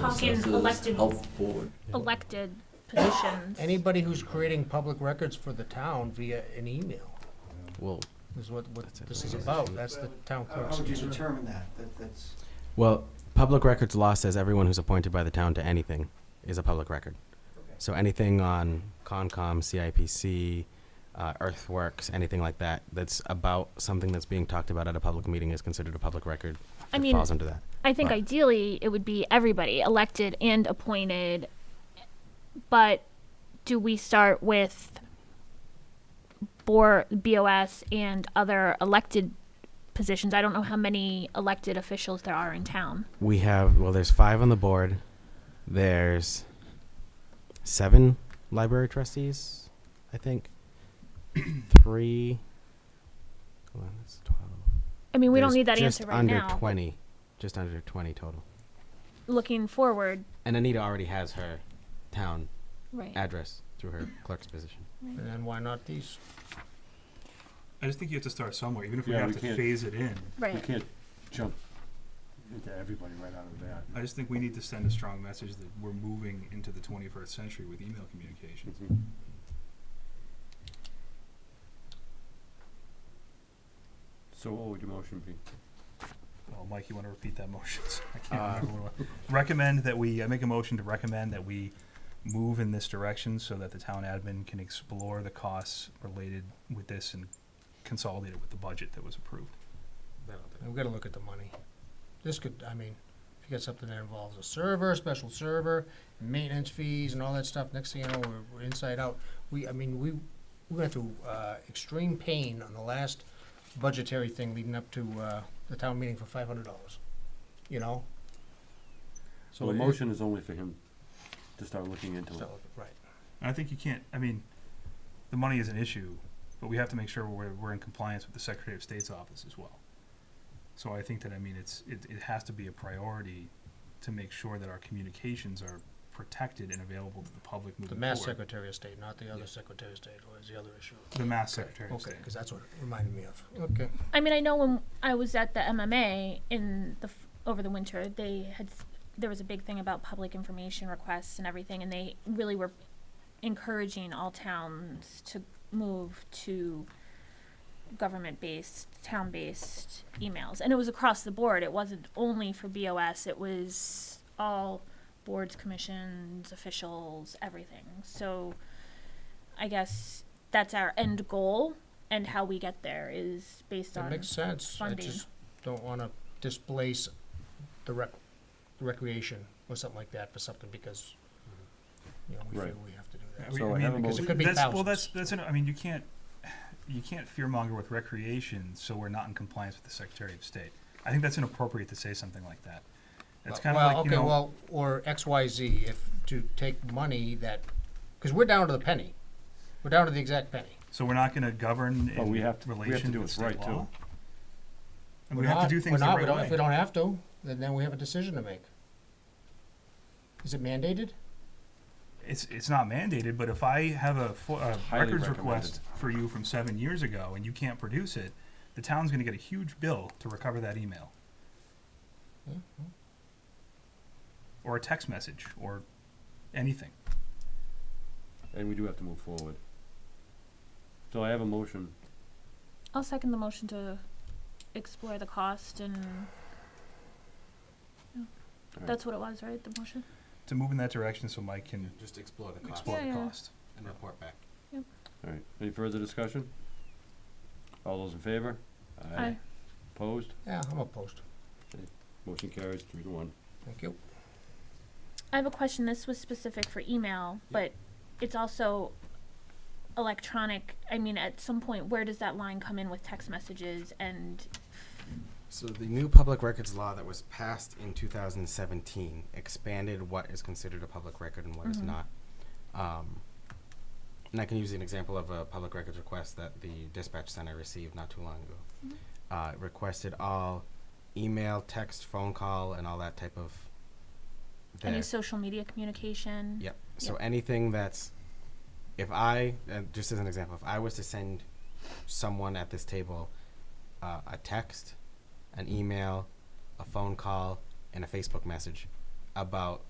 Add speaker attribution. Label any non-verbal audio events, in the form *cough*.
Speaker 1: talking
Speaker 2: Assessors,
Speaker 1: elected,
Speaker 2: Health board.
Speaker 1: elected positions.
Speaker 3: Anybody who's creating public records for the town via an email
Speaker 4: Well,
Speaker 3: is what, what this is about. That's the town
Speaker 5: How
Speaker 3: clerk's
Speaker 5: how would you
Speaker 3: concern.
Speaker 5: determine that? That, that's,
Speaker 4: well, public records law says everyone who's appointed by the town to anything is a public record. So anything on Concom, CIPC, uh, Earthworks, anything like that, that's about something that's being talked about at a public meeting is considered a public record.
Speaker 1: I
Speaker 4: It
Speaker 1: mean-
Speaker 4: falls under that.
Speaker 1: I think
Speaker 4: Right.
Speaker 1: ideally it would be everybody elected and appointed. But do we start with board BOS and other elected positions? I don't know how many elected officials there are in town.
Speaker 4: We have well, there's five on the board. There's seven library trustees, I think. *clears throat* Three. Hold on, that's twelve.
Speaker 1: I mean, we don't
Speaker 4: There's
Speaker 1: need that
Speaker 4: just
Speaker 1: answer right
Speaker 4: under
Speaker 1: now. but
Speaker 4: twenty, just under twenty total.
Speaker 1: Looking forward,
Speaker 4: And Anita already has her town
Speaker 1: right?
Speaker 4: address through her clerk's position.
Speaker 3: And then why not these?
Speaker 6: I just think you have to start somewhere, even if we
Speaker 7: Yeah,
Speaker 6: have
Speaker 7: we
Speaker 6: to
Speaker 7: can't-
Speaker 6: phase it in.
Speaker 7: You
Speaker 1: right.
Speaker 7: can't jump into everybody right out of that.
Speaker 6: I just think we need to send a strong message that we're moving into the 21st century with email communications.
Speaker 7: Mm-hmm. So what would your motion be?
Speaker 6: Well, Mike, you want to repeat that motion? I can't
Speaker 7: Uh, *laughs*
Speaker 6: remember what it was. recommend that we I make a motion to recommend that we move in this direction so that the town admin can explore the costs related with this and consolidate it with the budget that was approved.
Speaker 3: We've got to look at the money. This could, I mean, if you got something that involves a server, special server, maintenance fees and all that stuff, next thing you know, we're, we're inside out. We, I mean, we, we went through, uh, extreme pain on the last budgetary thing leading up to, uh, the town meeting for five hundred dollars, you know?
Speaker 7: So the
Speaker 3: it-
Speaker 7: motion is only for him to start looking into it.
Speaker 3: so, Right.
Speaker 6: And I think you can't, I mean, the money is an issue, but we have to make sure we're, we're in compliance with the Secretary of State's office as well. So I think that, I mean, it's, it, it has to be a priority to make sure that our communications are protected and available to the public
Speaker 3: The
Speaker 6: moving
Speaker 3: Mass
Speaker 6: forward.
Speaker 3: Secretary of State, not the other Secretary of State, was the other issue.
Speaker 6: The Mass Secretary of
Speaker 3: Okay,
Speaker 6: State.
Speaker 3: because that's what it reminded me of. Okay.
Speaker 1: I mean, I know when I was at the MMA in the f- over the winter, they had s- there was a big thing about public information requests and everything, and they really were encouraging all towns to move to government-based, town-based emails, and it was across the board. It wasn't only for BOS; it was all boards, commissions, officials, everything. So, I guess that's our end goal, and how we get there is based
Speaker 3: That
Speaker 1: on
Speaker 3: makes sense. I
Speaker 1: funding.
Speaker 3: just don't want to displace the rec, recreation or something like that for something because, you know, we
Speaker 7: Right.
Speaker 3: feel we have to do
Speaker 6: I
Speaker 3: that.
Speaker 6: mean-
Speaker 7: So
Speaker 6: I
Speaker 7: I
Speaker 6: mean,
Speaker 7: have a
Speaker 3: Because it
Speaker 7: motion.
Speaker 3: could be
Speaker 6: that's, well, that's,
Speaker 3: thousands.
Speaker 6: that's, an- I mean, you can't, you can't fearmonger with recreation, so we're not in compliance with the Secretary of State. I think that's inappropriate to say something like that. It's kind of
Speaker 3: Well,
Speaker 6: like, you
Speaker 3: okay,
Speaker 6: know.
Speaker 3: well, or X, Y, Z, if, to take money that, because we're down to the penny. We're down to the exact penny.
Speaker 6: So we're not gonna govern
Speaker 7: But
Speaker 6: in
Speaker 7: we have to- we have to
Speaker 6: relation
Speaker 7: do
Speaker 6: to
Speaker 7: what's
Speaker 6: state
Speaker 7: right, too.
Speaker 6: law? And
Speaker 3: We're
Speaker 6: we have to
Speaker 3: not-
Speaker 6: do
Speaker 3: we're
Speaker 6: things the
Speaker 3: not- we
Speaker 6: right
Speaker 3: don't- If we
Speaker 6: way.
Speaker 3: don't have to, then, then we have a decision to make. Is it mandated?
Speaker 6: It's, it's not mandated, but if I have a, fo- a
Speaker 7: Highly
Speaker 6: records
Speaker 7: recommended.
Speaker 6: request for you from seven years ago and you can't produce it, the town's gonna get a huge bill to recover that email.
Speaker 7: Mm-hmm.
Speaker 6: Or a text message, or anything.
Speaker 7: And we do have to move forward. So I have a motion.
Speaker 1: I'll second the motion to explore the cost and Yeah.
Speaker 7: Alright.
Speaker 1: that's what it was, right, the motion?
Speaker 6: To move in that direction so Mike can
Speaker 4: Just explore the cost
Speaker 6: explore
Speaker 1: Yeah,
Speaker 6: the
Speaker 1: yeah.
Speaker 6: cost.
Speaker 4: and report back.
Speaker 7: All right, any further discussion? All those in favor?
Speaker 1: Aye.
Speaker 7: Opposed?
Speaker 3: Yeah, I'm opposed.
Speaker 7: Motion carries three to one.
Speaker 3: Thank you.
Speaker 1: I have a question, this was specific for email, but it's also electronic, I mean, at some point, where does that line come in with text messages and,
Speaker 4: So the new public records law that was passed in 2017 expanded what is considered a public record and what is
Speaker 1: Mhm.
Speaker 4: not. Um, and I can use an example of a public records request that the dispatch center received not too long ago.
Speaker 1: Mhm.
Speaker 4: Uh, it requested all email, text, phone call, and all that type of.
Speaker 1: any
Speaker 4: there.
Speaker 1: social media communication?
Speaker 4: Yep. So anything that's, if I, uh, just as an example, if I was to send someone at this table uh, a text, an email, a phone call, and a Facebook message about